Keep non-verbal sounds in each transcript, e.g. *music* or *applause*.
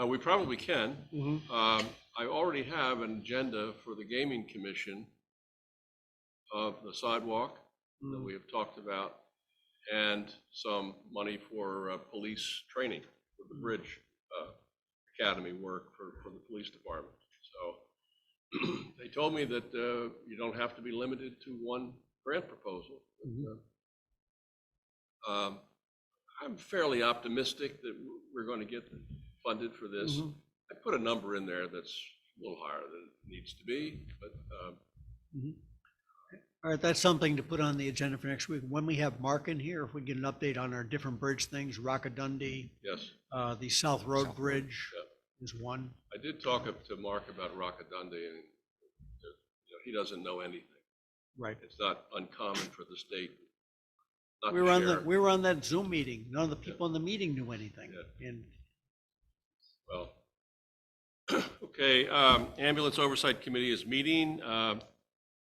Uh, we probably can. Mhm. Um, I already have an agenda for the gaming commission of the sidewalk that Hmm. we have talked about and some money for, uh, police training for the bridge, uh, academy work for, for the police department. So *clears throat* they told me that, uh, you don't have to be limited to one grant proposal. Mhm. Um, I'm fairly optimistic that we're going to get funded for this. Mhm. I put a number in there that's a little higher than it needs to be, but um, All right, that's something to put on the agenda for next week. When we have Mark in here, if we get an update on our different bridge things, Rockadundy, yes, uh, the South Road South Road, Bridge yeah. is one. I did talk up to Mark about Rockadundy, and uh, you know, he doesn't know anything. Right. It's not uncommon for the state not We were on to the, share. we were on that Zoom meeting. None of the people in the meeting knew anything. And Well, *clears throat* okay, um, Ambulance Oversight Committee is meeting. Um,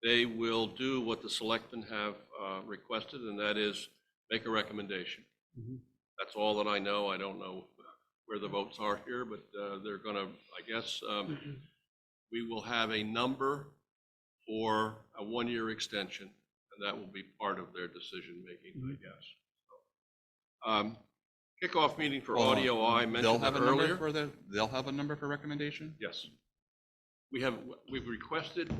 They will do what the selectmen have uh, requested, and that is make a recommendation. Mm-hmm. Mhm. That's all that I know. I don't know where the votes are here, but uh, they're going to, I guess, um, mm-hmm, we will have a number for a one-year extension, and that will be part of their decision-making, I Mm-hmm. guess. Um, Kickoff meeting for Well, audio, I They'll mentioned that have a number earlier. for the, they'll have a number for recommendation? Yes. We have, we've requested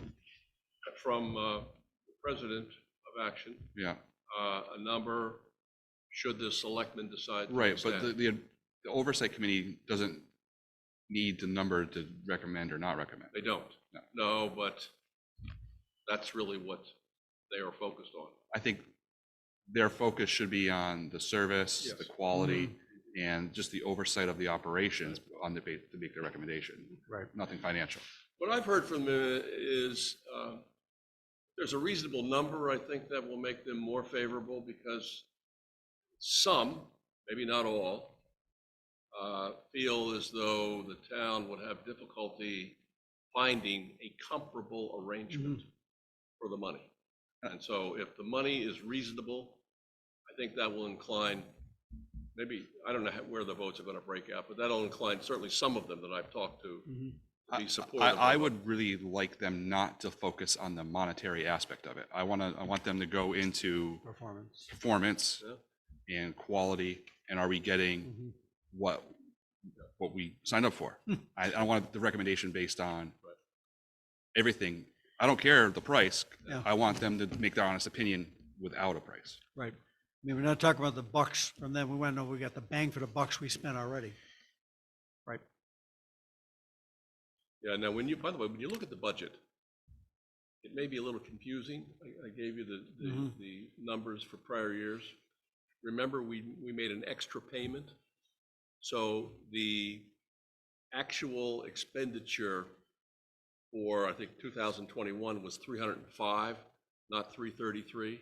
from uh, the president of Action, Yeah, uh, a number, should the selectmen decide. to right, but extend. the, the the oversight committee doesn't need the number to recommend or not recommend. They don't. No. No, but that's really what they are focused on. I think their focus should be on the service, the Yes. quality, and just the oversight of the operations on the, ba- to make the recommendation. Right. Nothing financial. What I've heard from them is, uh, there's a reasonable number, I think, that will make them more favorable because some, maybe not all, uh, feel as though the town would have difficulty finding a comparable arrangement Mm-hmm. for the money. Uh. And so if the money is reasonable, I think that will incline, maybe, I don't know how- where the votes are going to break out, but that'll incline certainly some of them that I've talked to Mhm. to I- be I, supportive. of I it. would really like them not to focus on the monetary aspect of it. I want to, I want them to go into performance. performance and quality, and are we getting Mhm. what, what we signed up for? Hmm. I, I want the recommendation based on Right. everything. I don't care the price. Yeah. I want them to make their honest opinion without a price. Right. I mean, we're not talking about the bucks from them. We want to know we got the bang for the bucks we spent already. Yeah, now, when you, by the way, when you look at the budget, it may be a little confusing. I, I gave you the, the, Mhm. the numbers for prior years. Remember, we, we made an extra payment? So the actual expenditure for, I think, two thousand twenty-one was three hundred and five, not three thirty-three.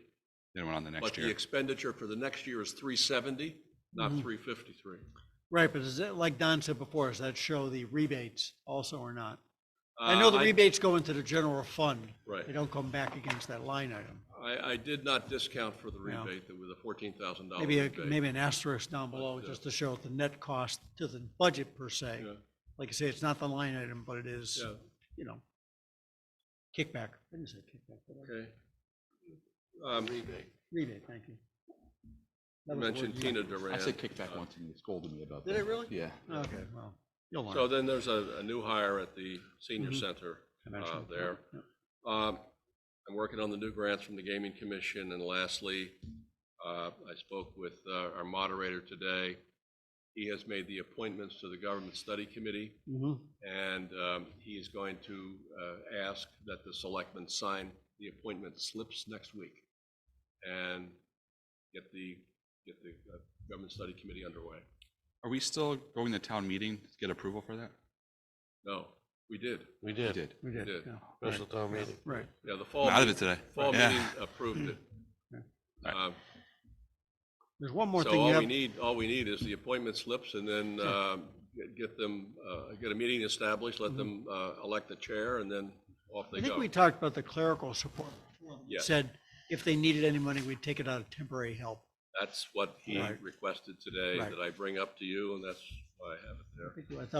Then went on the But next the year. expenditure for the next year is three seventy, not Mhm. three fifty-three. Right, but is it, like Don said before, does that show the rebates also or not? Uh, I know the rebates go into the general fund. Right. They don't come back against that line item. I, I did not discount for the No. rebate, that was a fourteen thousand dollar Maybe, a- rebate. maybe an asterisk down below, But, uh, just to show the net cost to the budget per se. Yeah. Like I say, it's not the line item, but it is, Yeah. you know, kickback. I didn't say kickback, but I- Okay. Um, rebate, thank you. You That was the word mentioned you Tina meant. Duran. Uh, I said kickback once and they scolded me about that. Did it really? Yeah. Okay, well, you'll learn. So uh, then there's a, a new hire at the senior Mhm. center. eventually. there. Yeah. Um, I'm working on the new grants from the Gaming Commission. And lastly, uh, I spoke with uh, our moderator today. He has made the appointments to the Government Study Committee, Mhm. and um, he is going to uh, ask that the selectmen sign the appointment slips next week and get the, get the uh, Government Study Committee underway. Are we still going to town meeting to get approval for that? No, we did. We We did, did. We did, did. yeah. special town meeting. Right, Yeah, the I'm fall, out of meeting- it today. fall Yeah. meeting approved *laughs* it. All Um, there's one more So thing you all we have, need, all we need is the appointment slips and then um, get- get them, uh, get a meeting established, let them uh, elect the chair and then off they Mm-hmm. I think go. we talked about the clerical support. before. We Yes. Said if they needed any money, we'd take it out of temporary help. That's what he Right. requested today Right. that I bring up to you and that's why I have it there. I think- I thought